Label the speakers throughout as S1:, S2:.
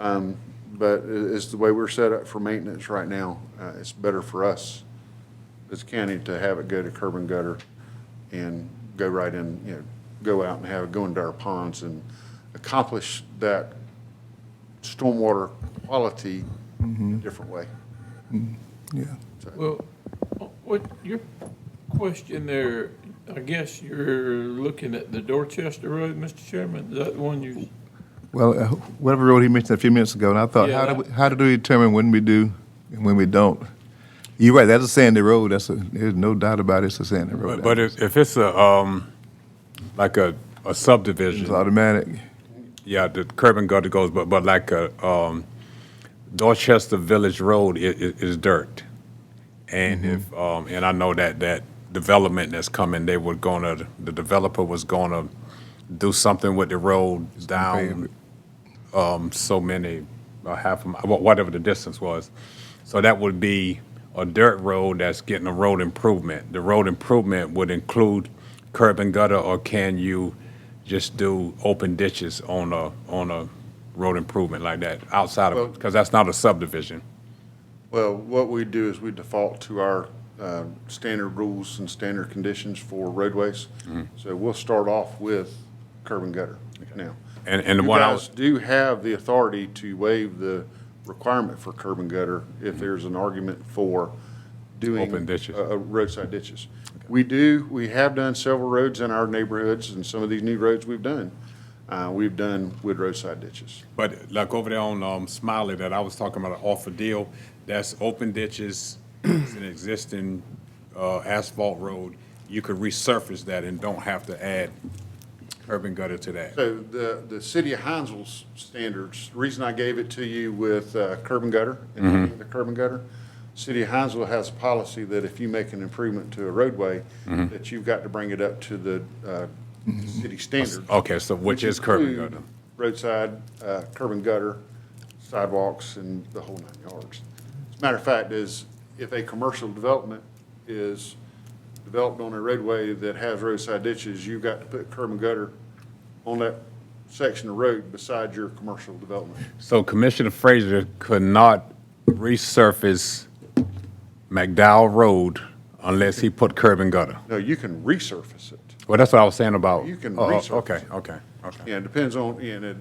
S1: Um, But i- it's the way we're set up for maintenance right now. Uh, It's better for us as county to have it go to curb and gutter and go right in, you know, go out and have it go into our ponds and accomplish that stormwater quality in a different way.
S2: Yeah.
S3: Well, what, your question there, I guess you're looking at the Dorchester Road, Mr. Chairman, is that the one you,
S2: Well, uh, whatever road he mentioned a few minutes ago, and I thought,
S3: Yeah,
S2: how do,
S3: that-
S2: we- how do we determine when we do and when we don't? You're right, that's a sandy road. That's a, there's no doubt about it, it's a sandy road.
S4: But, but if, if it's a, um, like a, a
S2: It's
S4: subdivision,
S2: automatic.
S4: yeah, the curb and gutter goes, but, but like a, um, Dorchester Village Road i- i- is dirt. And if, um, and I know that, that development that's coming, they were gonna, the developer was gonna do something with the road down, um, so many, a half, a mi- wha- whatever the distance was. So that would be a dirt road that's getting a road improvement. The road improvement would include curb and gutter, or can you just do open ditches on a, on a road improvement like that outside
S1: Well-
S4: of, because that's not a subdivision.
S1: Well, what we do is we default to our uh, standard rules and standard conditions for roadways. So we'll start off with curb and gutter now.
S4: And- and the one I was-
S1: You guys do have the authority to waive the requirement for curb and gutter if there's an argument for doing.
S4: Mm-hmm. Open ditches.
S1: uh, uh, Roadside ditches. We do, we have done several roads in our neighborhoods and some of these new roads we've done. uh, We've done with roadside ditches.
S4: But like over there on um, Smiley that I was talking about, an offer deal, that's open ditches, it's an existing uh, asphalt road. You could resurface that and don't have to add curb and gutter to that.
S1: So the, the city of Hinesville's standards, the reason I gave it to you with uh, curb and gutter, and the curb and gutter, city of Hinesville has a policy that if you make an improvement to a roadway, that you've got to bring it up to the uh, city standards.
S4: Okay, so which is curb and
S1: include
S4: gutter?
S1: Roadside, uh, curb and gutter, sidewalks, and the whole nine yards. As a matter of fact, is if a commercial development is developed on a roadway that has roadside ditches, you've got to put curb and gutter on that section of road beside your commercial development.
S4: So Commissioner Frazier could not resurface McDowell Road unless he put curb and gutter.
S1: No, you can resurface it.
S4: Well, that's what I was saying about.
S1: You can
S4: Oh, oh,
S1: resurface
S4: Okay,
S1: it.
S4: okay, okay.
S1: Yeah, it depends on, and it-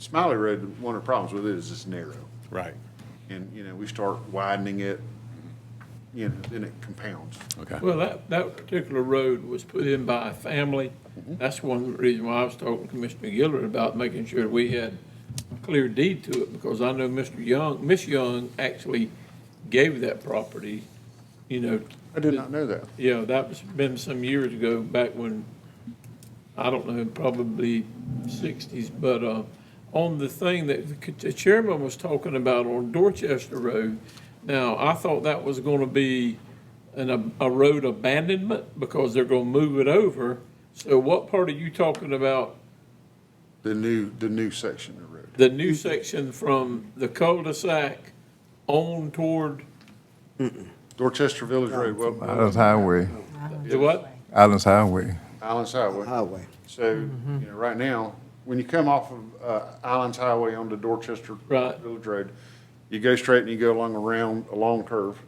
S1: Smiley Road, one of the problems with it is it's narrow.
S4: Right,
S1: And, you know, we start widening it, you know, then it compounds.
S4: okay.
S3: well, that, that particular road was put in by a family. That's one reason why I was talking to Commissioner Gillard about making sure we had a clear deed to it, because I know Mr. Young, Miss Young actually gave that property, you know,
S1: I did not know that.
S3: Yeah, that was been some years ago, back when, I don't know, probably sixties, but, uh, on the thing that the c- the chairman was talking about on Dorchester Road, now, I thought that was gonna be an, ab- a road abandonment, because they're gonna move it over. So what part are you talking about,
S1: The new, the new section of road.
S3: the new section from the cul-de-sac on toward,
S1: Dorchester Village Road, well,
S2: Islands Highway,
S3: the what?
S2: Islands Highway.
S1: Islands Highway.
S5: highway.
S1: So, you know, right now, when you come off of uh, Islands Highway onto Dorchester
S3: Right.
S1: Village Road, you go straight and you go along around a long curve.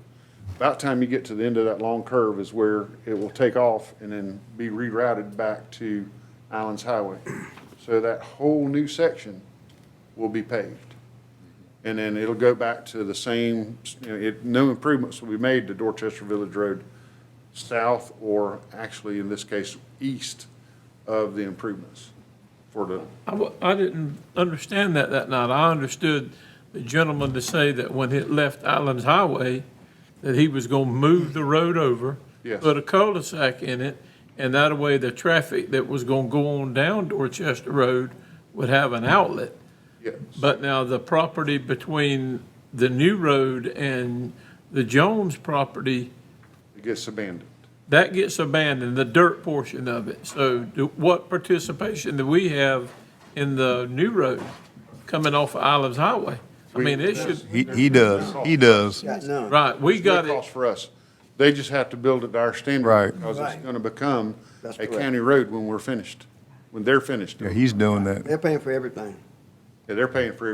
S1: About time you get to the end of that long curve is where it will take off and then be rerouted back to Islands Highway. So that whole new section will be paved. And then it'll go back to the same, you know, it, no improvements will be made to Dorchester Village Road south or actually in this case, east of the improvements for the,
S3: I, wa- I didn't understand that that night. I understood the gentleman to say that when it left Islands Highway, that he was gonna move the road over.
S1: Yes.
S3: Put a cul-de-sac in it, and that way the traffic that was gonna go on down Dorchester Road would have an outlet.
S1: yes.
S3: But now the property between the new road and the Jones property,
S1: It gets abandoned.
S3: that gets abandoned, the dirt portion of it. So do- what participation do we have in the new road coming off of Islands Highway? I mean, it should,
S2: He, he does, he does.
S5: Got none.
S3: right, we
S1: It's no
S3: got
S1: cost
S3: it,
S1: for us. They just have to build it to our standard.
S2: Right.
S1: Because it's
S5: Right.
S1: gonna become
S5: That's
S1: a
S5: correct.
S1: county road when we're finished, when they're finished.
S2: Yeah,
S1: Yeah,
S2: he's doing that.
S5: They're paying for everything.
S1: They're paying for